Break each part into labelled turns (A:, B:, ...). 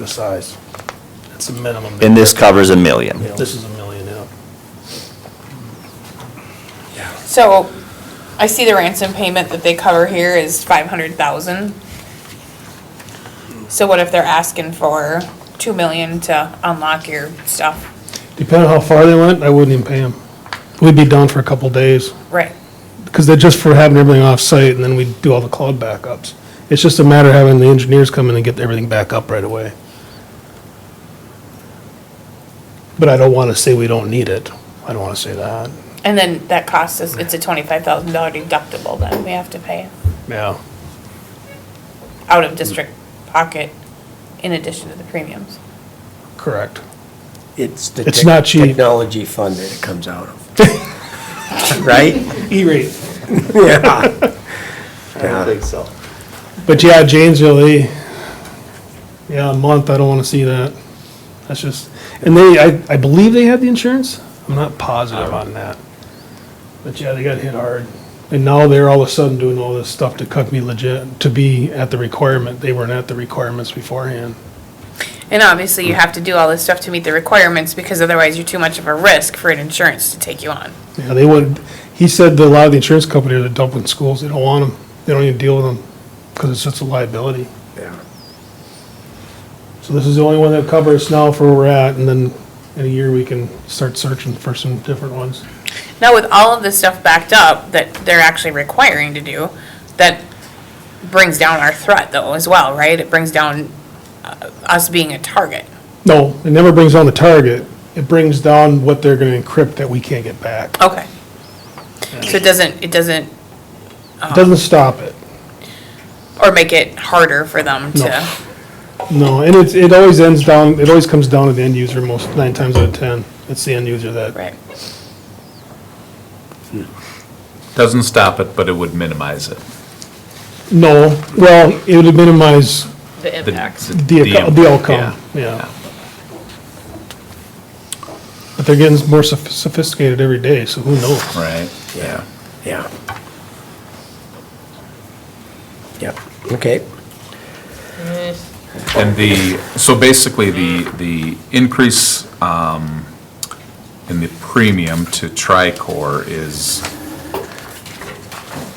A: the size. It's a minimum.
B: And this covers a million.
A: This is a million, yeah.
C: So I see the ransom payment that they cover here is five hundred thousand. So what if they're asking for two million to unlock your stuff?
A: Depending on how far they went, I wouldn't even pay them. We'd be down for a couple days,
C: Right.
A: because they're just for having everything off-site, and then we do all the cloud backups. It's just a matter of having the engineers come in and get everything back up right away. But I don't want to say we don't need it. I don't want to say that.
C: And then that costs us, it's a twenty-five thousand dollar deductible that we have to pay
A: Yeah.
C: out of district pocket in addition to the premiums.
A: Correct.
D: It's the
A: It's
D: tech-
A: not cheap.
D: technology fund that it comes out of. Right?
A: E-rate.
D: Yeah.
E: I don't think so.
A: But yeah, Janesville, they, yeah, a month, I don't wanna see that. That's just, and they, I, I believe they had the insurance. I'm not positive on that. But yeah, they got hit hard. And now they're all of a sudden doing all this stuff to cut me legit, to be at the requirement. They weren't at the requirements beforehand.
C: And obviously you have to do all this stuff to meet the requirements because otherwise you're too much of a risk for an insurance to take you on.
A: Yeah, they wouldn't, he said that a lot of the insurance companies are dumping schools. They don't want them. They don't even deal with them because it's such a liability.
D: Yeah.
A: So this is the only one that covers now for where we're at, and then in a year, we can start searching for some different ones.
C: Now with all of this stuff backed up that they're actually requiring to do, that brings down our threat though as well, right? It brings down uh, us being a target.
A: No, it never brings down the target. It brings down what they're gonna encrypt that we can't get back.
C: Okay. So it doesn't, it doesn't,
A: It doesn't stop it.
C: or make it harder for them
A: No.
C: to,
A: No, and it's, it always ends down, it always comes down to the end user most, nine times out of 10. It's the end user that,
C: right?
F: Doesn't stop it, but it would minimize it.
A: no, well, it would minimize
C: The
F: The-
A: the, ac- the outcome,
F: yeah.
A: yeah. But they're getting more soph- sophisticated every day, so who knows?
F: Right, yeah.
D: Yeah. Yep, okay.
F: And the, so basically, the, the increase um, in the premium to Tricor is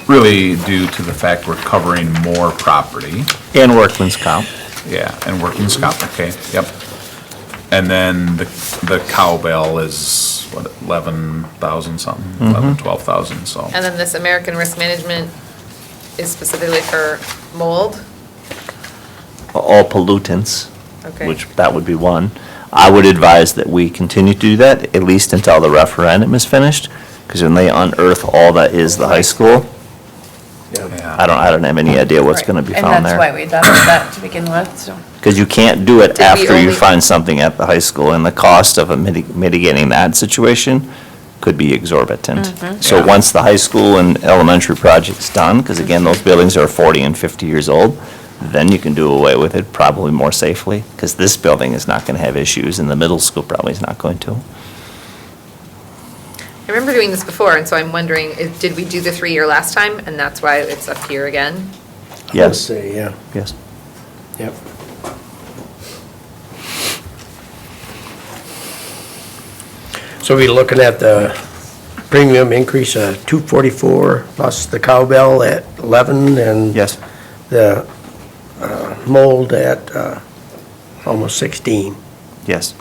F: really due to the fact we're covering more property.
B: And workman's comp.
F: Yeah, and workman's comp, okay, yep. And then the, the cowbell is, what, eleven thousand something, eleven, twelve thousand, so.
G: Mm-hmm. And then this American Risk Management is specifically for mold?
B: all pollutants,
G: Okay.
B: which that would be one. I would advise that we continue to do that, at least until the referendum is finished, because when they unearth all that is the high school, I don't, I don't have any idea what's gonna be found
C: And that's why
B: there.
C: we done that to begin with, so.
B: Because you can't do it
G: Did we
B: after you
G: only-
B: find something at the high school, and the cost of a mitig- mitigating that situation could be exorbitant. So
F: Yeah.
B: once the high school and elementary project's done, because again, those buildings are 40 and 50 years old, then you can do away with it probably more safely, because this building is not going to have issues, and the middle school probably is not going to.
G: I remember doing this before, and so I'm wondering, is- did we do the three-year last time, and that's why it's up here again?
D: I would
B: Yes,
D: say, yeah,
B: yes.
D: yep. So we're looking at the premium increase of two forty-four plus the cowbell at eleven and
B: Yes.
D: the uh, mold at uh, almost sixteen.
B: Yes,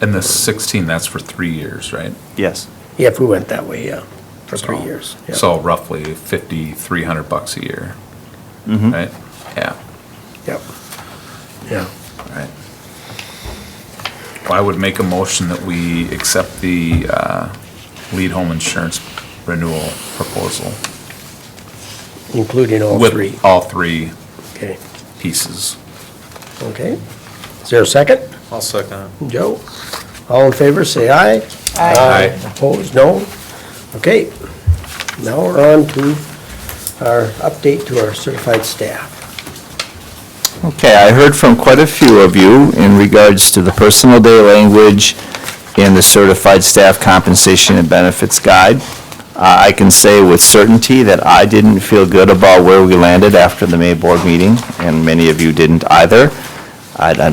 F: And the 16, that's for three years, right?
B: yes.
D: Yeah, if we went that way, yeah, for three
F: So-
D: years. yeah.
F: So roughly 50, 300 bucks a year,
B: Mhm.
F: right? Yeah,
D: Yep. Yeah.
F: right. Well, I would make a motion that we accept the uh, lead home insurance renewal proposal.
D: Including all
F: with
D: three.
F: All three
D: Okay,
F: pieces.
D: okay. Is there a second?
E: I'll second it.
D: Joe? All in favor, say aye.
F: Aye.
D: Opposed, no? Okay. Now we're on to our update to our certified staff.
B: Okay, I heard from quite a few of you in regards to the personal day language in the Certified Staff Compensation and Benefits Guide. Uh, I can say with certainty that I didn't feel good about where we landed after the May Board meeting, and many of you didn't either. I, I